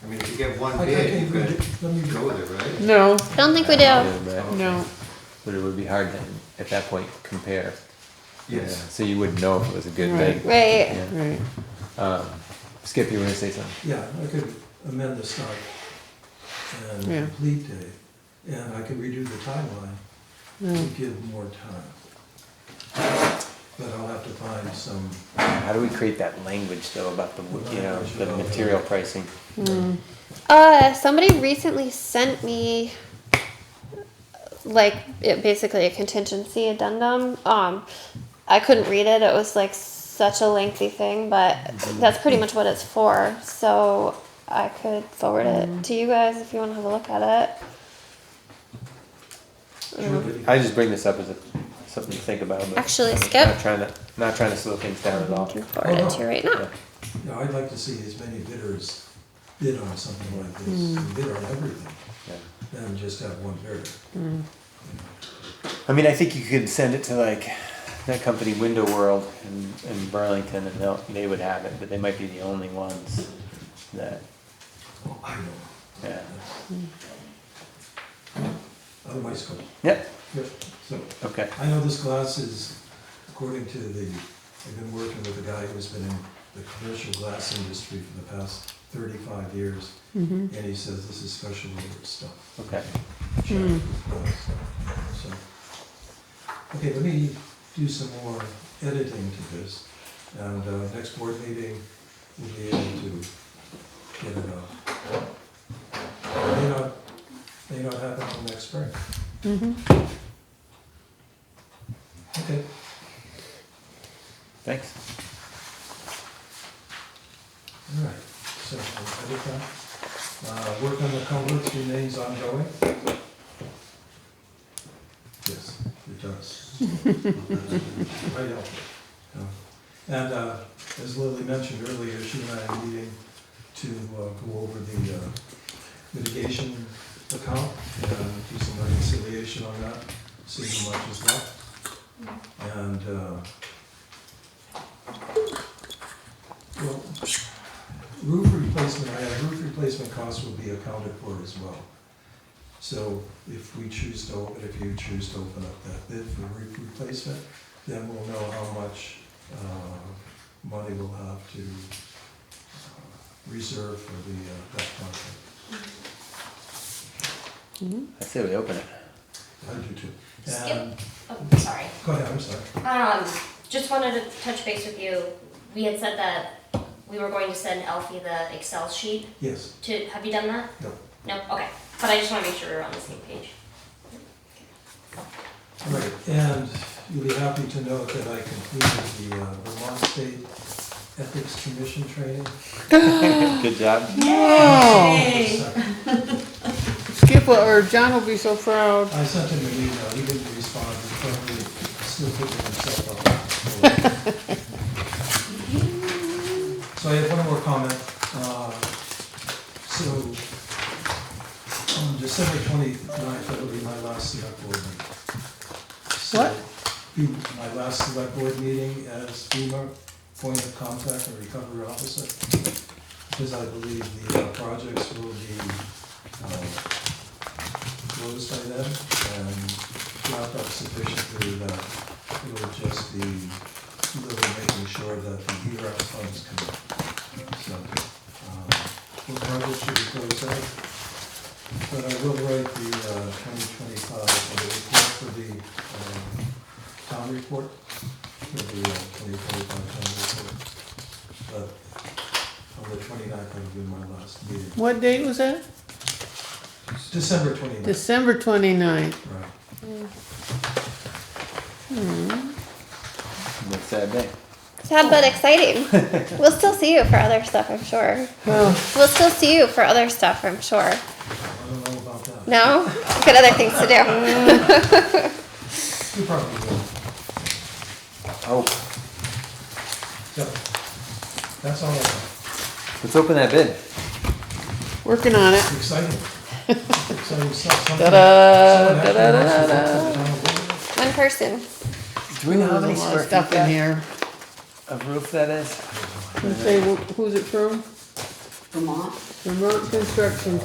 get one I I bid, you can't read could it, let me, go with it, right? No, I don't think we I do. don't know, but- no. But it would be hard to, at that point, compare. Yeah, Yes. So you wouldn't know if it was a good Right. bid. Right. Yeah. Right. Um, Skip, you were gonna say something? yeah, I could amend the start and Yeah. complete date, and I could redo the timeline to No. give more time. But I'll have to find some, How do we create that language though about the, w- you know, the material pricing? Uh, somebody recently sent me like it, basically a contingency addendum. Um, I couldn't read it. It was like such a lengthy thing, but that's pretty much what it's for. So I could forward it to you guys if you want to have a look at it. Uh, Mm. sure, but I just bring this up as a, something to think about. but Actually, I'm Skip? Not trying to, not trying to slow things down at I all. can forward it to you right now. Yeah. Yeah, I'd like to see as many bidders bid on something like this, and bid on everything, Yeah. than just have one bidder. I mean, I think you could send it to like that company Window World in, in Burlington and they'll, they would have it, but they might be the only ones that, Oh, I know, yeah. otherwise, go. Yep, Yep, so. okay. I know this glass is, according to the, I've been working with a guy who's been in the commercial glass industry for the past thirty-five years, Mm-hmm. and he says this is special order stuff. Okay. Check this glass. So, Okay, let me do some more editing to this, and uh, next board meeting, we'll be able to get it out. May not, may not happen till next spring, Mm-hmm. okay? Thanks. All right, so, we'll edit that. Uh, work on the culverts remains ongoing? Yes, it does. Right out there. Yeah. And, uh, as Lily mentioned earlier, she and I are meeting to uh, go over the uh, mitigation account, and do some reconciliation on that, see how much is left. And, uh, well, Roof replacement, I have roof replacement costs will be accounted for as well. So if we choose to, open, if you choose to open up that bid for roof replacement, then we'll know how much, uh, money we'll have to uh, reserve for the, uh, that contract. I say we open it. I do too. Skip, And- oh, sorry. Go ahead, I'm sorry. Um, just wanted to touch base with you. We had said that we were going to send Alfie the Excel sheet Yes, to, have you done that? no. No, okay. But I just wanna make sure we're on the same page. All right, and you'll be happy to know that I completed the uh, Vermont State Ethics Commission training. Good job. Skip will- or John will be so proud. I sent him an email, he didn't respond, he's probably still picking himself up. So I have one more comment, uh, so, on December 29th, that'll be my last select board meeting. So, What? Be my last select board meeting as FEMA point of contact and recovery officer, because I believe the uh, projects will be, uh, closed by then and wrapped up sufficiently that it will just be really making sure that the HERA funds come in. So, um, we'll probably should be closed out. But I will write the twenty twenty-five, the report for the um, town report, for the twenty twenty-five town report. But on the 29th that'll be my last meeting, What date was that? December 29th. December 29th. Right. It's a sad day. Sad but exciting. we'll still see you for other stuff, I'm sure. Oh, We'll still see you for other stuff, I'm sure. I don't know about that. No? I've got other things to do. You probably will. Oh, So, that's all I have. let's open that bid. working on it. It's Exciting. Exciting stuff. Something- Ta-da, someone actually ta-da, wants to ta-da. put something on. One person. Do we know how There's a many lot square of stuff feet in that, here. of roof that is? Let's say, wh- who's it from? Vermont. Vermont Construction